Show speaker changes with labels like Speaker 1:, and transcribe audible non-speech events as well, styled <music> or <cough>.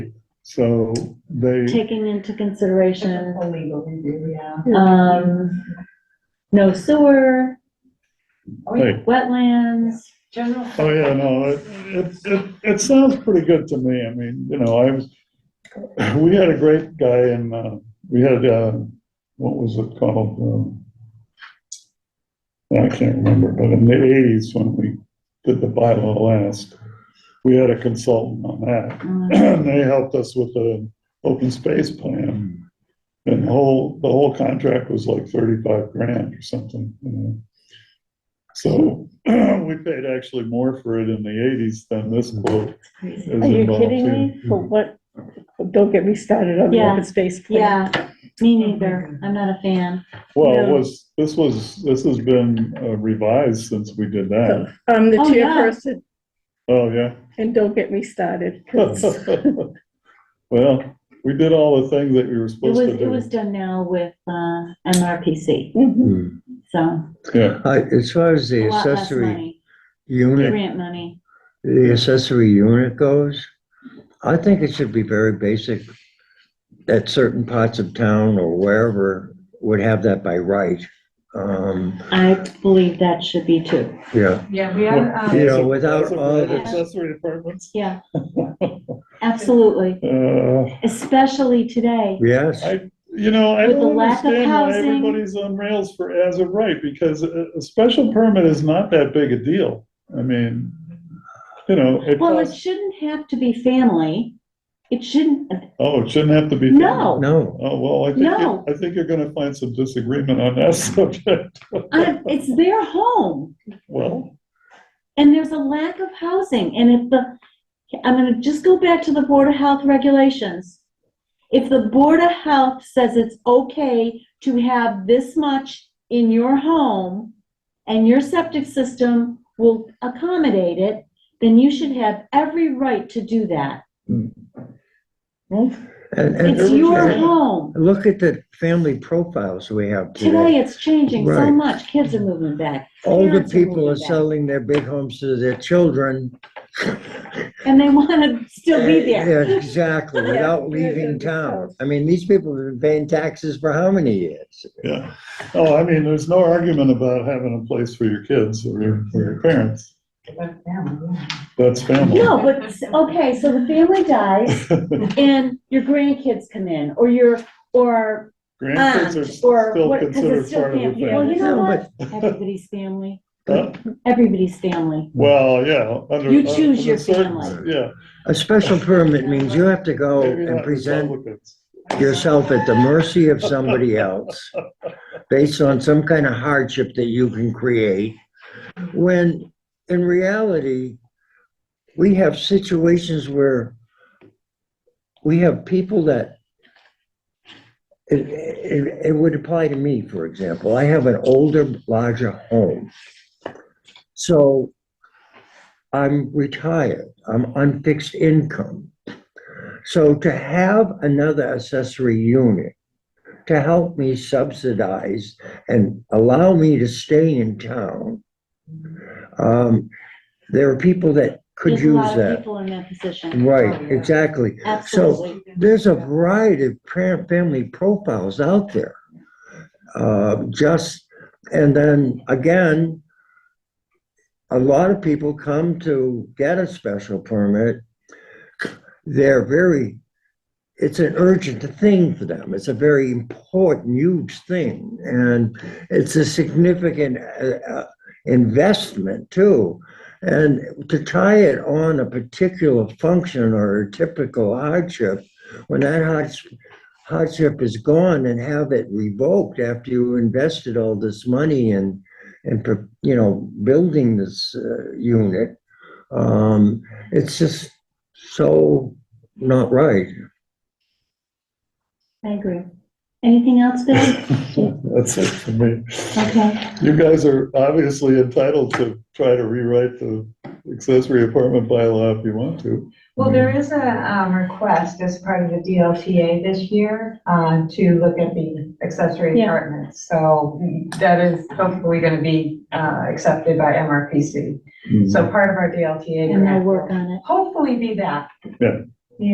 Speaker 1: So they,
Speaker 2: taking into consideration,
Speaker 3: A legal review, yeah.
Speaker 2: um, no sewer,
Speaker 3: Oh, yeah.
Speaker 1: hey,
Speaker 2: wetlands,
Speaker 3: General.
Speaker 1: oh yeah, no, it, it, it, it sounds pretty good to me. I mean, you know, I was, we had a great guy in, uh, we had, uh, what was it called? Um, I can't remember, but in the eighties when we did the bylaw last, we had a consultant on that. <coughs>
Speaker 2: uh,
Speaker 1: <clears throat> they helped us with the open space plan.
Speaker 4: Hmm.
Speaker 1: And the whole, the whole contract was like thirty-five grand or something, you know. So <clears throat> we paid actually more for it in the eighties than this
Speaker 4: Hmm.
Speaker 1: quote
Speaker 2: it's crazy.
Speaker 1: is
Speaker 5: Are you
Speaker 1: involved
Speaker 5: kidding
Speaker 1: in.
Speaker 5: me? But what, don't get me started on the
Speaker 2: Yeah.
Speaker 5: open space plan.
Speaker 2: Yeah, me neither, I'm not a fan.
Speaker 1: Well, it
Speaker 5: No.
Speaker 1: was, this was, this has been uh, revised since we did
Speaker 5: So,
Speaker 2: <laughs>
Speaker 1: that.
Speaker 5: I'm the
Speaker 2: Oh, yeah.
Speaker 5: chairperson,
Speaker 1: Oh, yeah. <laughs>
Speaker 5: and don't get me started. 'cause-
Speaker 1: Well, we did all the things that we were
Speaker 2: It was,
Speaker 1: supposed to
Speaker 2: it was
Speaker 1: do.
Speaker 2: done now with, uh, MRPC,
Speaker 5: Mhm.
Speaker 4: Hmm.
Speaker 2: so,
Speaker 1: Yeah,
Speaker 4: Uh, As far as
Speaker 2: a
Speaker 4: the
Speaker 2: lot less
Speaker 4: accessory
Speaker 2: money,
Speaker 4: unit,
Speaker 2: grant money.
Speaker 4: the accessory unit goes, I think it should be very basic. That certain parts of town or wherever would have that by right. Um,
Speaker 2: I believe that should be too,
Speaker 4: yeah,
Speaker 3: Yeah, we have, um,
Speaker 4: you know, without
Speaker 1: That's a
Speaker 4: all
Speaker 1: great
Speaker 4: the,
Speaker 1: Accessory apartments.
Speaker 2: yeah. Absolutely,
Speaker 1: Uh,
Speaker 2: especially today.
Speaker 4: yes,
Speaker 1: I- You know, I
Speaker 2: With the
Speaker 1: don't
Speaker 2: lack of
Speaker 1: understand why
Speaker 2: housing.
Speaker 1: everybody's on rails for as of right, because a, a special permit is not that big a deal. I mean, you know, it
Speaker 2: Well, it
Speaker 1: costs,
Speaker 2: shouldn't have to be family. It shouldn't,
Speaker 1: oh, it shouldn't have to be.
Speaker 2: No.
Speaker 4: no.
Speaker 1: Oh, well, I think,
Speaker 2: No.
Speaker 1: you- I think you're gonna find some disagreement on that <laughs> subject.
Speaker 2: I- it's their home
Speaker 1: Well,
Speaker 2: and there's a lack of housing. And if the, I'm gonna just go back to the Board of Health regulations. If the Board of Health says it's okay to have this much in your home and your septic system will accommodate it, then you should have every right to do that.
Speaker 4: And, and
Speaker 2: It's your
Speaker 4: and
Speaker 2: home.
Speaker 4: look at the family profiles we have
Speaker 2: Today,
Speaker 4: today.
Speaker 2: it's changing so
Speaker 4: Right.
Speaker 2: much. Kids are moving back.
Speaker 4: Older
Speaker 2: parents are
Speaker 4: people
Speaker 2: moving
Speaker 4: are
Speaker 2: back.
Speaker 4: selling their big homes to their children.
Speaker 2: And they want to still be there.
Speaker 4: Yeah,
Speaker 2: <laughs>
Speaker 4: Eh, Exactly, without leaving town. I mean, these people have been paying taxes for how many years?
Speaker 1: yeah. Oh, I mean, there's no argument about having a place for your kids or your, or your parents.
Speaker 3: but now, yeah.
Speaker 1: That's family.
Speaker 2: No, but, s- okay, so the family dies
Speaker 4: <laughs>
Speaker 2: and your grandkids come in or your,
Speaker 4: <laughs>
Speaker 2: or
Speaker 1: Grandkids
Speaker 2: aunt
Speaker 1: are
Speaker 2: or
Speaker 1: still
Speaker 2: what, because it's
Speaker 1: considered
Speaker 2: still
Speaker 1: part of the
Speaker 2: family. Well,
Speaker 1: family.
Speaker 2: you know
Speaker 4: No,
Speaker 2: what? Everybody's family.
Speaker 1: Huh?
Speaker 2: Everybody's family.
Speaker 1: Well, yeah. under- uh,
Speaker 2: You choose
Speaker 1: under
Speaker 2: your
Speaker 1: certain-
Speaker 2: family.
Speaker 1: Yeah.
Speaker 4: A special permit means you have to go
Speaker 1: maybe
Speaker 4: and
Speaker 1: not
Speaker 4: present
Speaker 1: Republicans. <laughs>
Speaker 4: yourself at the mercy of somebody else based on some kind of hardship that you can create, when in reality, we have situations where we have people that, it, it, it would apply to me, for example. I have an older, larger home. So I'm retired, I'm on fixed income. So to have another accessory unit to help me subsidize and allow me to stay in town, um, there are people that could
Speaker 2: There's a
Speaker 4: use
Speaker 2: lot of
Speaker 4: that.
Speaker 2: people in that position.
Speaker 3: Oh,
Speaker 4: Right,
Speaker 3: yeah.
Speaker 4: exactly. So
Speaker 2: Absolutely.
Speaker 4: there's a variety of parent family profiles out there. Uh, just, and then again, a lot of people come to get a special permit. They're very, it's an urgent thing for them. It's a very important, huge thing. And it's a significant uh, uh, investment too. And to tie it on a particular function or a typical hardship, when that hards- hardship is gone and have it revoked after you invested all this money in, in, pro- you know, building this uh, unit, um, it's just so not right.
Speaker 2: I agree. Anything else, Bill?
Speaker 1: That's it for me.
Speaker 2: Okay.
Speaker 1: You guys are obviously entitled to try to rewrite the accessory apartment bylaw if you want to.
Speaker 3: Well, there is a, um, request as part of the DLTA this year, uh, to look at the accessory
Speaker 2: Yeah.
Speaker 3: apartments. So that is hopefully gonna be, uh, accepted by
Speaker 1: Mm-hmm.
Speaker 3: MRPC. So part of our DLTA.
Speaker 2: And they'll
Speaker 3: grant
Speaker 2: work
Speaker 3: will
Speaker 2: on it.
Speaker 3: Hopefully be that.
Speaker 1: Yeah.